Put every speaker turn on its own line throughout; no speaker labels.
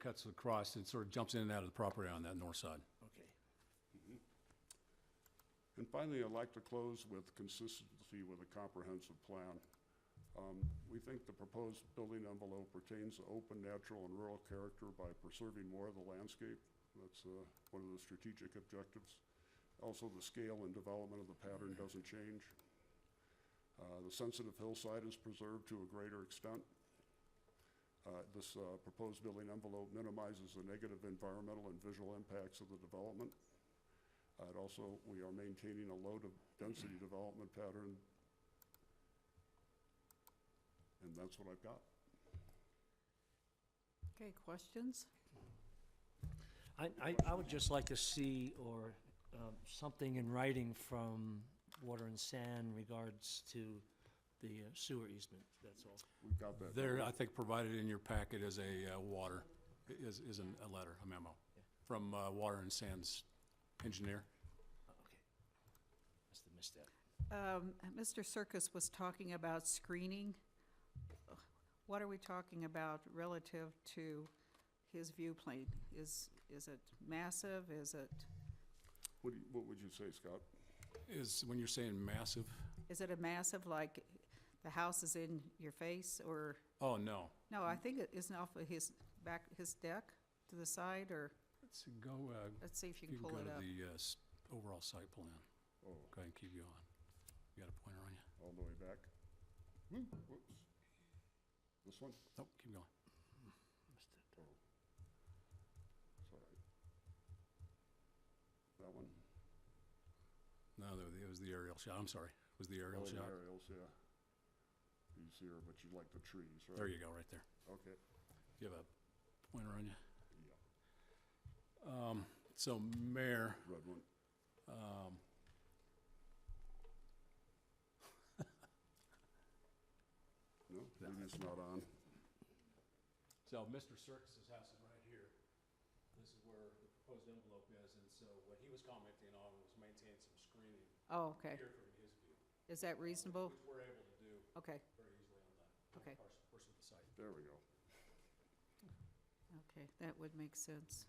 cuts across and sort of jumps in and out of the property on that north side.
Okay.
And finally, I'd like to close with consistency with a comprehensive plan. Um, We think the proposed building envelope retains the open, natural, and rural character by preserving more of the landscape. That's uh, one of the strategic objectives. Also, the scale and development of the pattern doesn't change. Uh, The sensitive hillside is preserved to a greater extent. Uh, This uh, proposed building envelope minimizes the negative environmental and visual impacts of the development. Uh, It also, we are maintaining a low de- density development pattern. And that's what I've got.
Okay, questions?
I, I, I would just like to see, or, um, something in writing from Water and Sand regards to the uh, sewer easement, that's all.
We've got that.
There, I think provided in your packet is a uh, water, is, is an- a letter, a memo from uh, Water and Sands Engineer.
Uh, Okay. Must have missed that.
Um, Mr. Circus was talking about screening. What are we talking about relative to his view plane? Is, is it massive? Is it,
What do you- what would you say, Scott?
Is, when you're saying massive,
is it a massive, like, the house is in your face, or,
oh, no.
no, I think it isn't off of his back, his deck to the side, or,
Let's see, go, uh,
let's see if you
you
can
can go
pull
to
it up.
the uh, s- overall site plan.
Oh,
Go ahead and keep going. You got a pointer on you?
all the way back. Hmm, Whoops. This one?
Nope, keep going.
Missed it.
Oh. Sorry. That one?
No, there- it was the aerial shot, I'm sorry. It was the
Oh,
aerial
the
shot.
Aerials, yeah. He's here, but you like the trees, right?
There you go, right there.
Okay,
You have a pointer on you?
yeah,
Um, so Mayor,
red one.
um,
No, maybe it's not on.
so Mr. Circus's house is right here. This is where the proposed envelope is, and so what he was commenting on was maintain some screening
Oh, okay.
here from his view,
Is that reasonable?
which we're able to do
Okay,
very easily on that.
okay,
Person of the site.
There we go.
okay, that would make sense.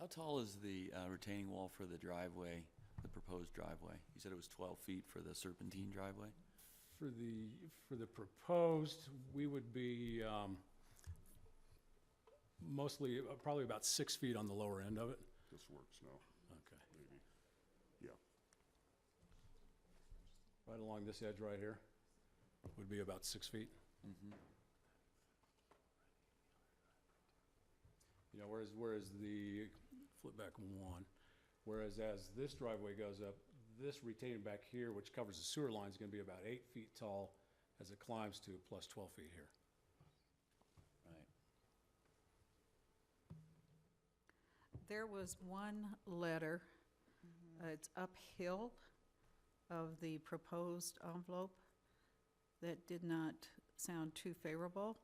How tall is the uh, retaining wall for the driveway, the proposed driveway? You said it was 12 feet for the serpentine driveway?
For the, for the proposed, we would be, um, mostly, uh, probably about six feet on the lower end of it.
This works now,
Okay.
maybe.
Right along this edge right here would be about six feet. You know, whereas, whereas the, flip back one, whereas as this driveway goes up, this retaining back here, which covers the sewer line, is gonna be about eight feet tall as it climbs to plus twelve feet here.
Right.
There was one letter, uh, it's uphill of the proposed envelope that did not sound too favorable.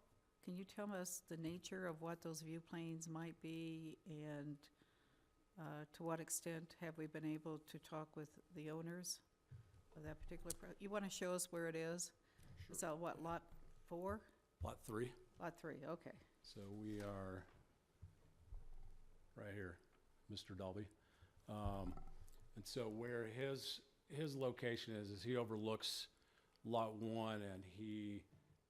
Can you tell us the nature of what those view planes might be and uh, to what extent have we been able to talk with the owners of that particular, pro- you want to show us where it is? So what, lot four?
Lot three,
Lot three, okay.
so we are right here, Mr. Dolby. Um, and so where his, his location is, is he overlooks Lot One and he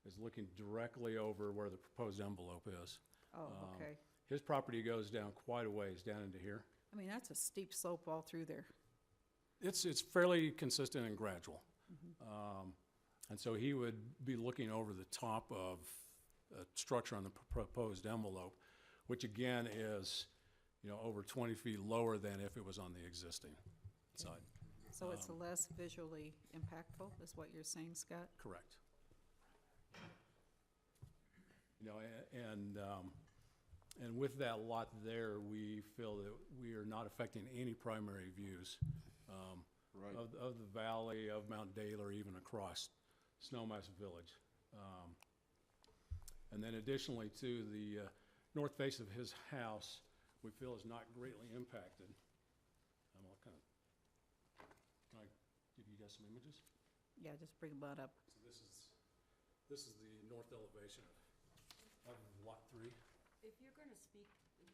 is looking directly over where the proposed envelope is.
Oh,
Um,
okay.
His property goes down quite a ways, down into here.
I mean, that's a steep slope all through there.
It's, it's fairly consistent and gradual. Um, And so he would be looking over the top of a structure on the p- proposed envelope, which again is, you know, over 20 feet lower than if it was on the existing side.
So it's less visually impactful, is what you're saying, Scott?
Correct. You know, a- and, um, and with that lot there, we feel that we are not affecting any primary views um,
Right.
of, of the valley, of Mount Dale, or even across Snowmass Village. Um, And then additionally to the uh, north face of his house, we feel is not greatly impacted. I'm all kind of, can I give you guys some images?
Yeah, just bring that up.
So this is, this is the north elevation of, of lot three.
If you're gonna speak